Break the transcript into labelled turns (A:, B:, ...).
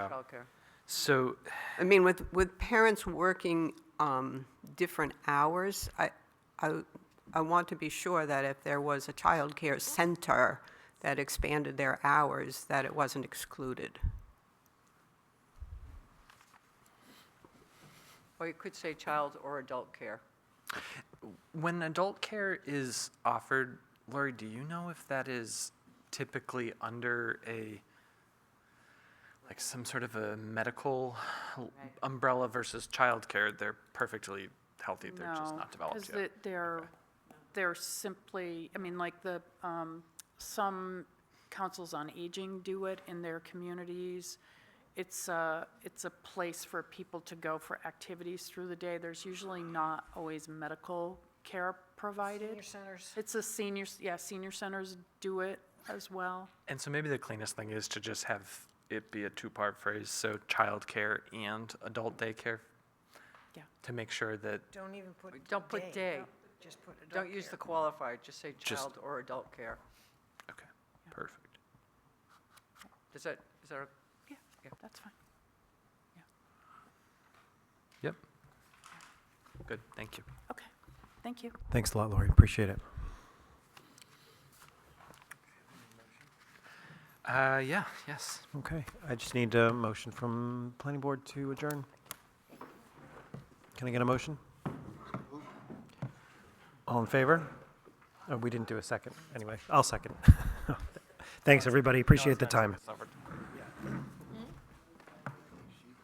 A: childcare.
B: So,
C: I mean, with, with parents working um, different hours, I, I, I want to be sure that if there was a childcare center that expanded their hours, that it wasn't excluded.
A: Or you could say child or adult care.
B: when adult care is offered, Lori, do you know if that is typically under a like some sort of a medical l- umbrella versus childcare? They're perfectly healthy. They're just not developed yet.
D: Because they're, they're simply, I mean, like the, um, some councils on aging do it in their communities. It's a, it's a place for people to go for activities through the day. There's usually not always medical care provided. Senior centers. It's a seniors, yeah, senior centers do it as well.
B: And so maybe the cleanest thing is to just have it be a two-part phrase, so childcare and adult daycare.
D: Yeah.
B: To make sure that
E: Don't even put.
A: Don't put day.
E: Just put adult
A: Don't use the qualifier, just say
B: Just-
A: child or adult care.
B: okay, perfect.
A: Is that, is that, a-
D: Yeah, that's fine.
B: Yep. Good. Thank you.
D: Okay, thank you.
F: Thanks a lot, Lori. Appreciate it.
B: Uh, yeah. Yes.
F: Okay, I just need a motion from planning board to adjourn. Can I get a motion? All in favor? Oh, we didn't do a second. Anyway, I'll second. Thanks, everybody. Appreciate the time.
B: Over